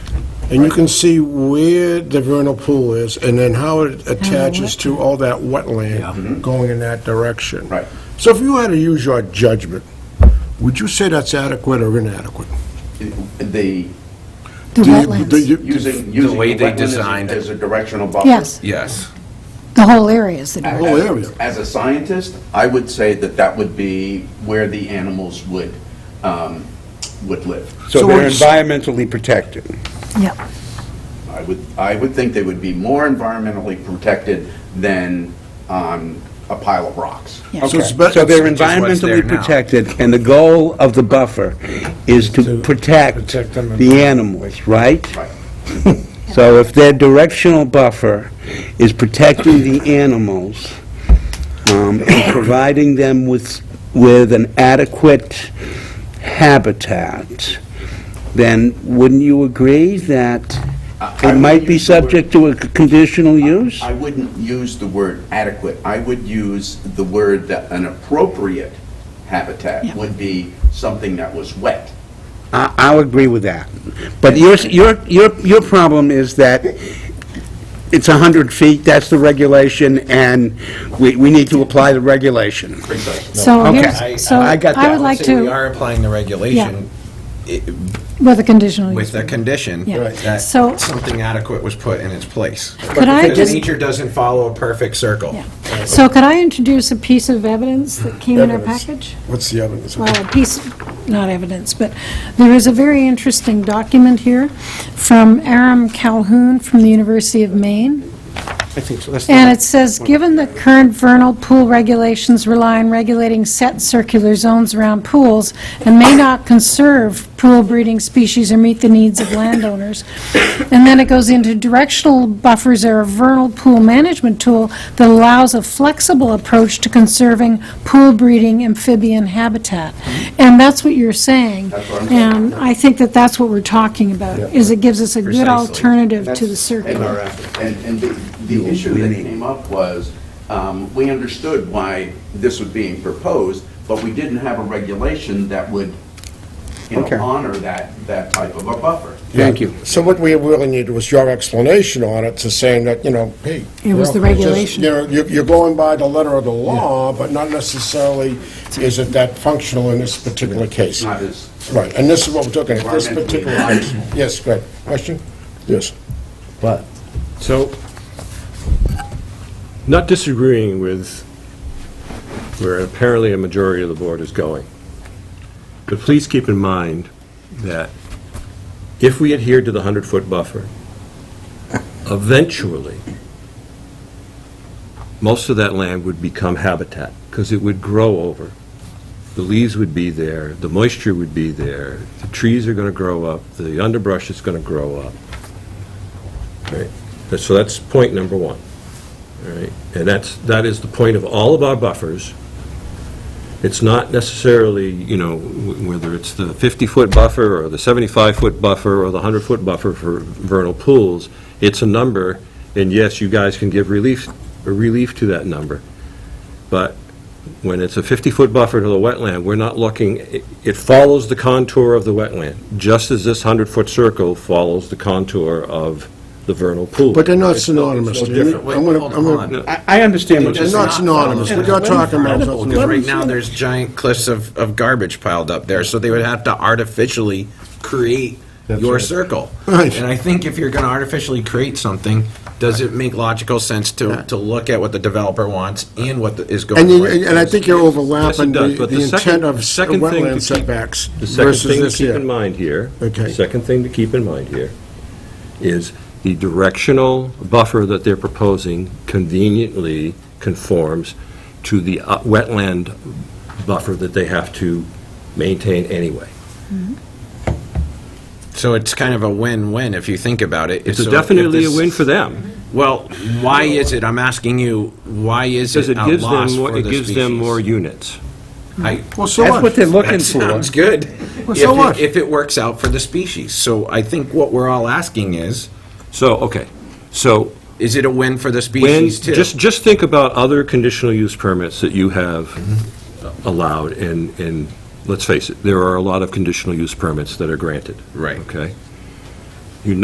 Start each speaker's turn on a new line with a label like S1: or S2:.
S1: And you can see where the vernal pool is, and then how it
S2: Oh,
S1: attaches to all that wetland going in that direction.
S3: Right.
S1: So if you had to use your judgment, would you say that's adequate or inadequate?
S3: The,
S2: The
S1: Do you- do
S2: wetlands,
S1: you-
S3: using, using.
S4: way they
S3: wetland as a-
S4: designed it.
S3: As a directional buffer.
S2: yes,
S4: Yes.
S2: the whole area is the
S1: whole
S2: direct.
S1: area.
S3: As a scientist, I would say that that would be where the animals would, um, would live.
S1: So
S5: So they're
S1: it's-
S5: environmentally protected.
S2: Yeah,
S3: I would, I would think they would be more environmentally protected than on a pile of rocks.
S2: yeah.
S5: Okay,
S1: it's bet-
S5: so they're
S4: Which is what's there
S5: environmentally
S4: now.
S5: protected, and the goal of the buffer is
S1: To
S5: to protect
S1: protect them and-
S5: the animals, right?
S3: Right.
S5: So if their directional buffer is protecting the animals, um, and providing them with, with an adequate habitat, then wouldn't you agree that
S3: I- I
S5: it might be
S3: use the word-
S5: subject to a conditional use?
S3: I wouldn't use the word adequate. I would use the word that an appropriate habitat
S2: Yeah.
S3: would be something that was wet.
S5: I- I'll agree with that. But your, your, your your problem is that it's 100 feet, that's the regulation, and we, we need to apply the regulation.
S2: So
S5: Okay,
S6: I-
S2: here's, so
S5: I
S2: I
S5: got that.
S2: would like
S6: say We
S2: to,
S6: are applying the regulation i-
S2: with a conditional use.
S6: with the condition
S2: Yeah. Right.
S6: that
S2: So-
S6: something adequate was put in its place.
S2: Could I
S6: Because
S2: just-
S6: nature doesn't follow a perfect circle.
S2: Yeah. So could I introduce a piece of evidence that came in our
S1: Evidence.
S2: package?
S1: What's the evidence?
S2: Well, a piece, not evidence, but there is a very interesting document here from Aram Calhoun from the University of Maine.
S5: I think so.
S2: And it says, "Given that current vernal pool regulations rely on regulating set circular zones around pools and may not conserve pool breeding species or meet the needs of landowners." And then it goes into directional buffers are a vernal pool management tool that allows a flexible approach to conserving pool breeding amphibian habitat. And Mm-hmm. that's what you're saying. And I think that that's what we're talking about, is it gives us a good
S6: Precisely.
S2: alternative to the
S3: And-
S2: circular.
S3: And, and the, the issue that came up was, um, we understood why this was being proposed, but we didn't have a regulation that would, you
S5: Okay.
S3: know, honor that, that type of a buffer.
S5: Thank you.
S1: So what we really need was your explanation on it, to saying that, you know, hey.
S2: It was
S1: you
S2: the
S1: know, just,
S2: regulation.
S1: You know, you're you're going by the letter of the law, but not necessarily is it that functional in this particular case.
S3: Not as
S1: Right, and this is what we're talking about, this
S3: Environmentally
S1: particular,
S3: advisable.
S1: yes, go ahead. Question? Yes.
S7: But, so, not disagreeing with where apparently a majority of the board is going, but please keep in mind that if we adhere to the 100-foot buffer, eventually, most of that land would become habitat, because it would grow over. The leaves would be there, the moisture would be there, the trees are going to grow up, the underbrush is going to grow up. Right. That- So that's point number one. All right. And that's, that is the point of all of our buffers. It's not necessarily, you know, wh- whether it's the 50-foot buffer or the 75-foot buffer or the 100-foot buffer for vernal pools, it's a number, and yes, you guys can give relief, relief to that number. But when it's a 50-foot buffer to the wetland, we're not looking, it- it follows the contour of the wetland, just as this 100-foot circle follows the contour of the vernal pool.
S1: But they're not synonymous.
S7: no
S1: Jimmy.
S7: different.
S1: I'm gonna-
S6: Wait,
S1: I'm
S6: hold
S1: gonna-
S6: on.
S5: I, I understand what
S1: They're
S5: you're
S6: does
S5: saying.
S1: not
S6: not
S1: synonymous,
S6: follow
S1: we're not talking about.
S6: Because
S1: something-
S6: right now, there's giant cliffs of, of garbage piled up there, so they would have to artificially create your circle.
S1: Right.
S6: And I think if you're gonna artificially create something, does it make logical sense to, to look at what the developer wants and what the- is going
S1: And you,
S6: on?
S1: and I think you're
S7: Yes, it
S1: overlapping
S7: does,
S1: the
S7: but
S1: the intent
S7: second-
S1: of
S7: the second thing to
S1: wetland
S7: keep-
S1: setbacks
S7: The second
S1: versus
S7: thing to
S1: this
S7: keep in
S1: here.
S7: mind here.
S1: Okay.
S7: Second thing to keep in mind here is the directional buffer that they're proposing conveniently conforms to the uh, wetland buffer that they have to maintain anyway.
S6: So it's kind of a win-win if you think about it.
S7: It's definitely a win for them,
S6: Well, why is it, I'm asking you, why is
S7: because
S6: it
S7: it
S6: a
S7: gives them,
S6: loss
S7: more-
S6: for
S7: it
S6: the
S7: gives them
S6: species?
S7: more units.
S6: I-
S1: Well, so
S5: That's what
S1: what?
S5: they're looking
S6: That
S5: for.
S6: sounds good.
S1: Well, so
S6: If it-
S1: what?
S6: If it works out for the species. So I think what we're all asking is,
S7: So, okay, so
S6: is it a win for the
S7: When,
S6: species too?
S7: just, just think about other conditional use permits that you have allowed, and, and, let's face it, there are a lot of conditional use permits that are granted.
S6: Right.
S7: Okay?